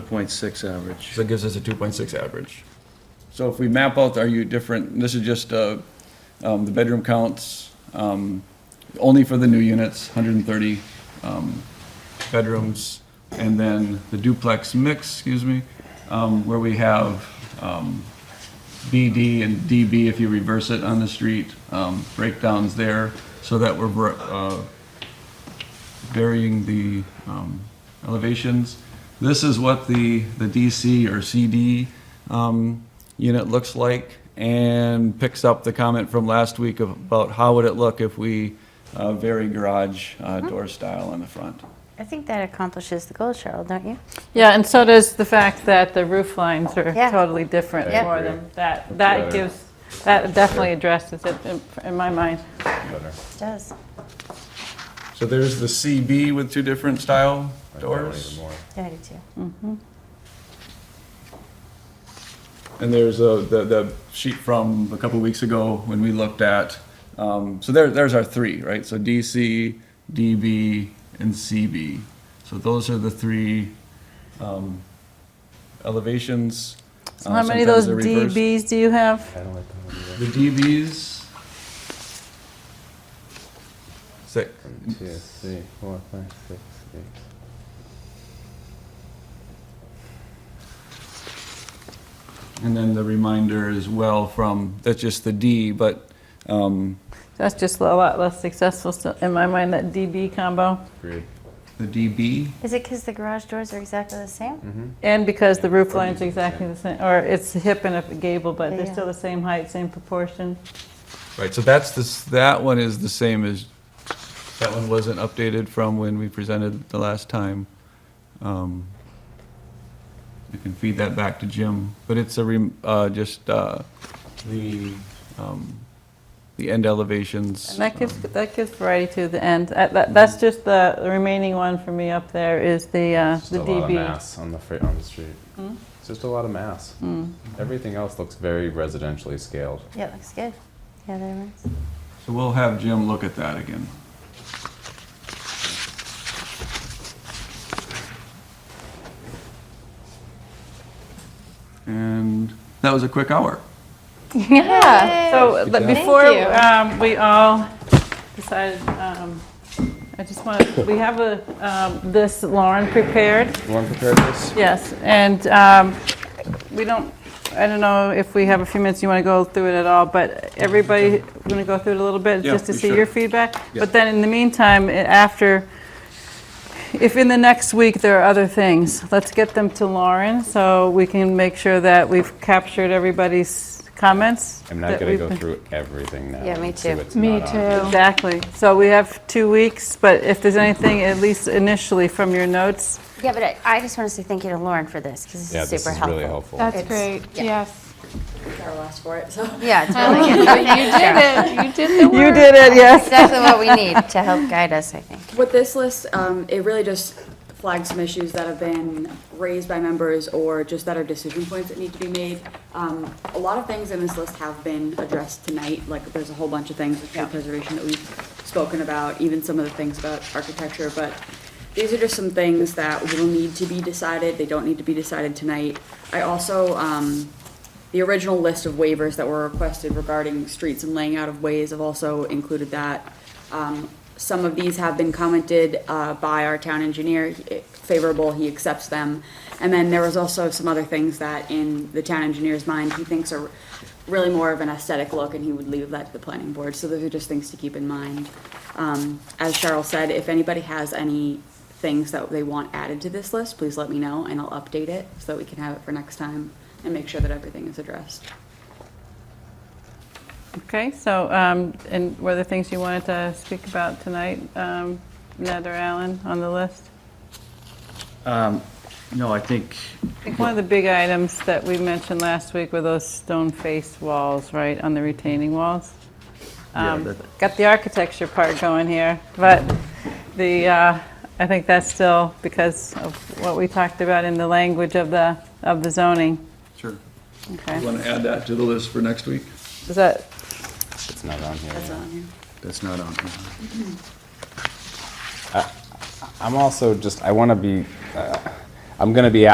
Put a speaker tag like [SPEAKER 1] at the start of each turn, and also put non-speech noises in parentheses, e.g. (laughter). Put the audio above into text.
[SPEAKER 1] 2.6 average.
[SPEAKER 2] So that gives us a 2.6 average.
[SPEAKER 3] So if we map out our u different, this is just uh, um, the bedroom counts, um, only for the new units, 130 um, bedrooms, and then the duplex mix, excuse me, um, where we have um, BD and DB, if you reverse it on the street, um, breakdowns there, so that we're br- uh, varying the um, elevations. This is what the, the DC or CD um, unit looks like and picks up the comment from last week of- about how would it look if we uh, vary garage uh, door style on the front.
[SPEAKER 4] I think that accomplishes the goal, Cheryl, don't you?
[SPEAKER 5] Yeah, and so does the fact that the roof lines are
[SPEAKER 4] Yeah.
[SPEAKER 5] totally different
[SPEAKER 4] Yeah.
[SPEAKER 5] for them. That, that gives, that definitely addresses it in- in my mind.
[SPEAKER 4] It does.
[SPEAKER 3] So there's the CB with two different style
[SPEAKER 6] I don't know
[SPEAKER 3] doors.
[SPEAKER 6] even more.
[SPEAKER 4] Yeah, I do too.
[SPEAKER 3] And there's a, the, the sheet from a couple weeks ago when we looked at, um, so there, there's our three, right? So DC, DB, and CB. So those are the three, um, elevations.
[SPEAKER 5] So
[SPEAKER 3] Uh,
[SPEAKER 5] how many of those
[SPEAKER 3] sometimes they're reversed.
[SPEAKER 5] DBs do you have?
[SPEAKER 6] I don't like that one either.
[SPEAKER 3] The DBs,
[SPEAKER 2] Six.
[SPEAKER 6] One, two, three, four, five, six, eight.
[SPEAKER 3] and then the reminder as well from, that's just the D, but, um,
[SPEAKER 5] That's just a lot less successful still- in my mind, that DB combo.
[SPEAKER 6] Agreed.
[SPEAKER 3] the DB,
[SPEAKER 4] Is it because the garage doors are exactly the
[SPEAKER 6] Mm-hmm.
[SPEAKER 4] same?
[SPEAKER 5] And because the roof line's exactly the same, or it's a hip and a gable, but they're
[SPEAKER 4] Yeah.
[SPEAKER 5] still the same height, same proportion.
[SPEAKER 3] Right, so that's this, that one is the same as, that one wasn't updated from when we presented the last time. Um, You can feed that back to Jim, but it's a, rem- uh, just, uh, the, um, the end elevations.
[SPEAKER 5] And that gives, that gives variety to the end. That- that- That's just the the remaining one for me up there is the, uh,
[SPEAKER 6] Just
[SPEAKER 5] the
[SPEAKER 6] a lot of
[SPEAKER 5] DB.
[SPEAKER 6] mass on the freight on the street. It's just a lot of mass. Everything else looks very residentially scaled.
[SPEAKER 4] Yeah, it looks good. Yeah, there it is.
[SPEAKER 3] So we'll have Jim look at that again. And that was a quick hour.
[SPEAKER 5] (laughs) Yeah, so
[SPEAKER 6] Good
[SPEAKER 5] but
[SPEAKER 6] job.
[SPEAKER 5] before
[SPEAKER 4] Thank you.
[SPEAKER 5] um, we all decided, um, I just want, to we have a, um, this Lauren prepared.
[SPEAKER 6] You want to prepare this?
[SPEAKER 5] Yes, and um, we don't, I don't know if we have a few minutes, you want to go through it at all, but everybody, we're going to go through it a little bit,
[SPEAKER 3] Yeah,
[SPEAKER 5] just to
[SPEAKER 3] we
[SPEAKER 5] see
[SPEAKER 3] should.
[SPEAKER 5] your feedback.
[SPEAKER 3] Yeah.
[SPEAKER 5] But then in the meantime, i- after, if in the next week there are other things, let's get them to Lauren, so we can make sure that we've captured everybody's comments.
[SPEAKER 6] I'm not
[SPEAKER 5] that
[SPEAKER 6] going to
[SPEAKER 5] we've
[SPEAKER 6] go
[SPEAKER 5] been-
[SPEAKER 6] through everything now.
[SPEAKER 4] Yeah, me
[SPEAKER 6] and see
[SPEAKER 4] too.
[SPEAKER 6] what's
[SPEAKER 5] Me
[SPEAKER 6] not on.
[SPEAKER 5] Exactly, so we have two weeks, but if there's anything, at least initially from your notes,
[SPEAKER 4] Yeah, but I, I just want to say thank you to Lauren for this because
[SPEAKER 6] Yeah,
[SPEAKER 4] it's
[SPEAKER 6] this
[SPEAKER 4] super
[SPEAKER 6] is
[SPEAKER 4] helpful.
[SPEAKER 6] really helpful.
[SPEAKER 7] That's
[SPEAKER 4] It's-
[SPEAKER 7] great,
[SPEAKER 4] yeah.
[SPEAKER 7] yes.
[SPEAKER 8] (laughs)
[SPEAKER 4] Yeah, (laughs) it's really good.
[SPEAKER 7] But you did it, you did the work.
[SPEAKER 5] you did it, yes.
[SPEAKER 4] exactly what we need to help guide us, I think.
[SPEAKER 8] With this list, um, it really just flags some issues that have been raised by members or just that are decision points that need to be made. Um, a lot of things in this list have been addressed tonight, like there's a whole bunch of things with tree preservation that we've spoken about, even some of the things about architecture, but these are just some things that will need to be decided, they don't need to be decided tonight. I also, um, the original list of waivers that were requested regarding streets and laying out of ways have also included that. Um, Some of these have been commented uh, by our town engineer, He- favorable, he accepts them. And then there was also some other things that in the town engineer's mind, he thinks are really more of an aesthetic look and he would leave that to the planning board. So those are just things to keep in mind. Um, As Cheryl said, if anybody has any things that they want added to this list, please let me know and I'll update it so that we can have it for next time and make sure that everything is addressed.
[SPEAKER 5] Okay, so, um, and were there things you wanted to speak about tonight, um, Ned or Alan, on the list?
[SPEAKER 1] Um, No, I think,
[SPEAKER 5] I think one of the big items that we mentioned last week were those stone-faced walls, right, on the retaining walls?
[SPEAKER 1] Yeah,
[SPEAKER 5] Um,
[SPEAKER 1] that-
[SPEAKER 5] Got the architecture part going here, but the, uh, I think that's still because of what we talked about in the language of the, of the zoning.
[SPEAKER 3] Sure. You
[SPEAKER 5] Okay,
[SPEAKER 3] want to add that to the list for next week?
[SPEAKER 5] is that,
[SPEAKER 6] It's not on here.
[SPEAKER 8] That's
[SPEAKER 6] yeah.
[SPEAKER 8] all on here.
[SPEAKER 1] that's not on here.
[SPEAKER 6] I'm also just, I want to be, uh, I'm going to be